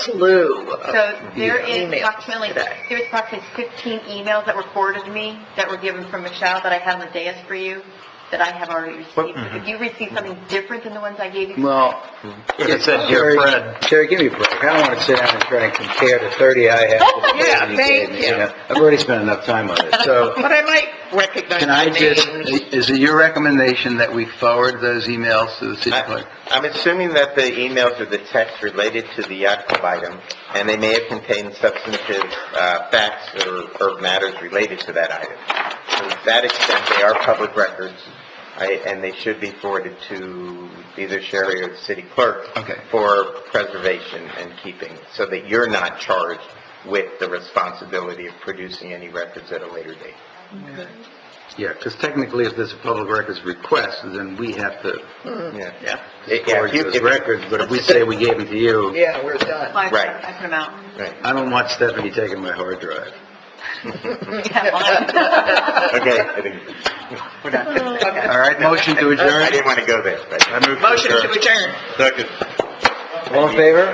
slew of, So there is Uh, Emails approximately, today. there's approximately 15 emails that were forwarded to me that were given from Michelle that I have on the dais for you, that I have already received. Mm-hmm. If you receive something different than the ones I gave you, Well. If it said, "Dear Terry- Fred." Terry, give me a break. I don't want to sit down and try and compare the 30 I have. to the Yeah, 30 gave me, thank you. know. I've already spent enough time on it, so but I might recognize can I the just, names. is it your recommendation that we forward those emails to the city clerk? I'm assuming that the emails or the text related to the actual item, and they may have contained substantive uh, facts or or matters related to that item. To that extent, they are public records, I- and they should be forwarded to either Sherry or the city clerk Okay. for preservation and keeping, so that you're not charged with the responsibility of producing any records at a later date. Yeah, because technically if there's a public records request, then we have to Yeah. Yeah, Yeah, forward if you- those if- records, but if we say we gave them to you, yeah, we're done. I Right. I put them out. Right. I don't want Stephanie taking my hard drive. Yeah, mine. Okay. I think- We're done. Okay. All right, motion to I adjourn? didn't want to go there, but. I move Motion to adjourn. Second. All in favor?